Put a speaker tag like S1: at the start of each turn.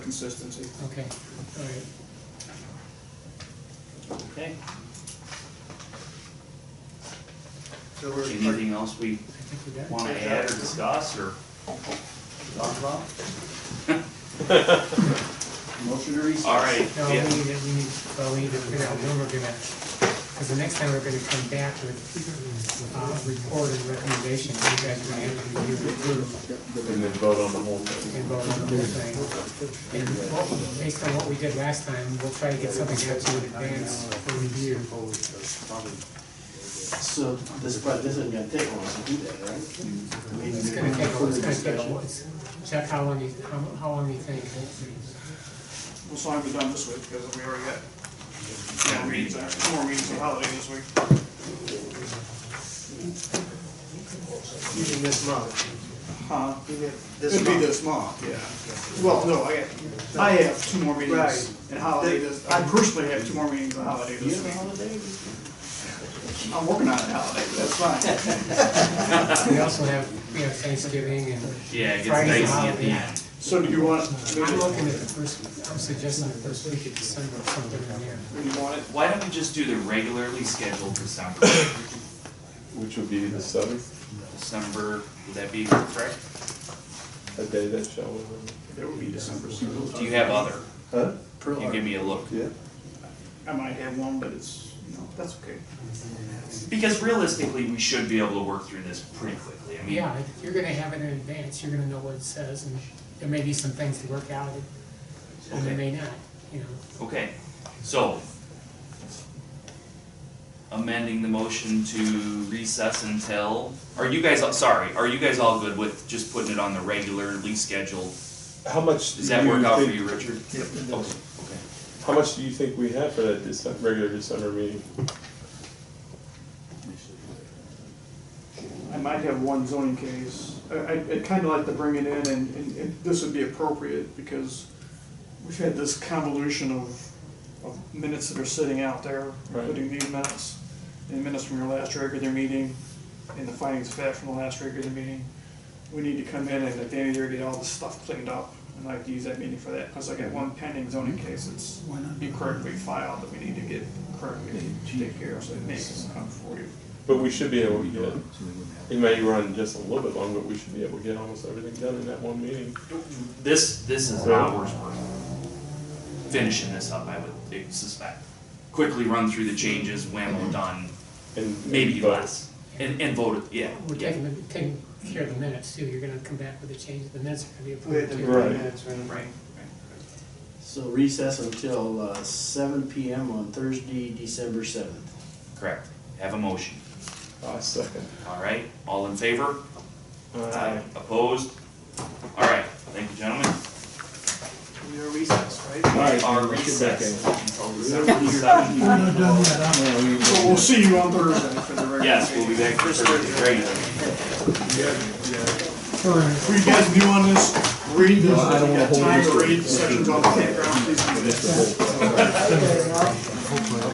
S1: Consistency.
S2: Okay, all right.
S3: Okay,
S1: So we're-
S3: anything else we
S2: I think we got it.
S3: want to add or discuss or talk about?
S1: Motion to recess.
S3: All right,
S2: No, we need,
S3: yeah,
S2: to- we need, well, we need to figure out when we're gonna, because the next time we're gonna come back with, uh, report and recommendations, you guys are gonna have to review it through
S4: And then vote on the whole thing.
S2: and vote on the whole thing. And what- based on what we did last time, we'll try to get something out to you in advance for review.
S5: So this, but this isn't gonna take long to do that, right? I mean,
S2: It's gonna take, a- it's gonna take, a while. Jeff, how long you, how, how long you think?
S1: Well, so I'll be done this week because we already got four meetings, actually, four meetings on holiday this week.
S6: Using this month,
S1: Huh?
S6: even this
S1: It'd
S6: month.
S1: be this month, yeah. Well, no, I, got- I have two more
S6: Right.
S1: meetings and holiday this, I personally have two more meetings on holiday
S5: You
S1: this
S5: have a
S1: week.
S5: holiday?
S1: I'm working on it holiday, but that's fine.
S2: We also have, we have Thanksgiving and
S3: yeah, it gets
S2: Friday's a
S3: dicey at the
S2: holiday.
S3: end.
S1: So do you want, do
S2: I'm looking at the first, I'm suggesting the first week of December, or something in there.
S1: you want it?
S3: Why don't we just do the regularly scheduled December,
S4: Which would be the seventh,
S3: December, would that be correct?
S4: a day that shall remember.
S1: There would be December.
S3: Do you have other?
S4: Huh?
S3: Can you give me a look?
S4: Yeah.
S1: I might have one, but it's, you know, that's okay.
S3: Because realistically, we should be able to work through this pretty quickly. I mean,
S2: Yeah, you're gonna have it in advance, you're gonna know what it says, and there may be some things to work out, and there may not, you know.
S3: Okay, so amending the motion to recess until, are you guys, sorry, are you guys all good with just putting it on the regularly scheduled?
S4: How much do
S3: Does that work out for
S4: think-
S3: you, Richard? Yep. Okay, okay.
S4: How much do you think we have for that December, regular December meeting?
S1: I might have one zoning case. I, I- I'd kind of like to bring it in, and, and and this would be appropriate, because we've had this convolution of, of minutes that are sitting out there,
S4: Right.
S1: including these minutes, and minutes from your last regular meeting, and the findings of fact from the last regular meeting. We need to come in and at the end of the year, get all this stuff cleaned up, and I'd use that meeting for that, because I got one pending zoning case that's incorrectly filed that we need to get correctly to take care of, so it makes it come for you.
S4: But we should be able to get, it may run just a little bit long, but we should be able to get almost everything done in that one meeting.
S3: This, this is hours worth. Finishing this up, I would suspect. Quickly run through the changes, whammo, done,
S4: And
S3: maybe
S4: but-
S3: less. And, and voted, yeah,
S2: We're
S3: yeah,
S2: taking, the- taking care of the minutes too, you're gonna come back with a change, the minutes are gonna be
S6: We had
S2: approved
S6: to
S2: too.
S4: Right.
S6: minutes, right?
S3: right.
S5: So recess until uh, seven PM on Thursday, December seventh.
S3: Correct. Have a motion.
S4: I second.
S3: All right, all in favor?
S4: Aye.
S3: Opposed? All right, thank you, gentlemen.
S1: We are recessed, right?
S4: All right,
S3: Our
S4: Richard
S3: recess
S4: Beckett.
S3: until December seventh.
S1: So we'll see you on Thursday for the regular.
S3: Yes, we'll be back for Thursday, great.
S1: Were you guys new on this? Read this, if you got time to read sections on the campground, please do this.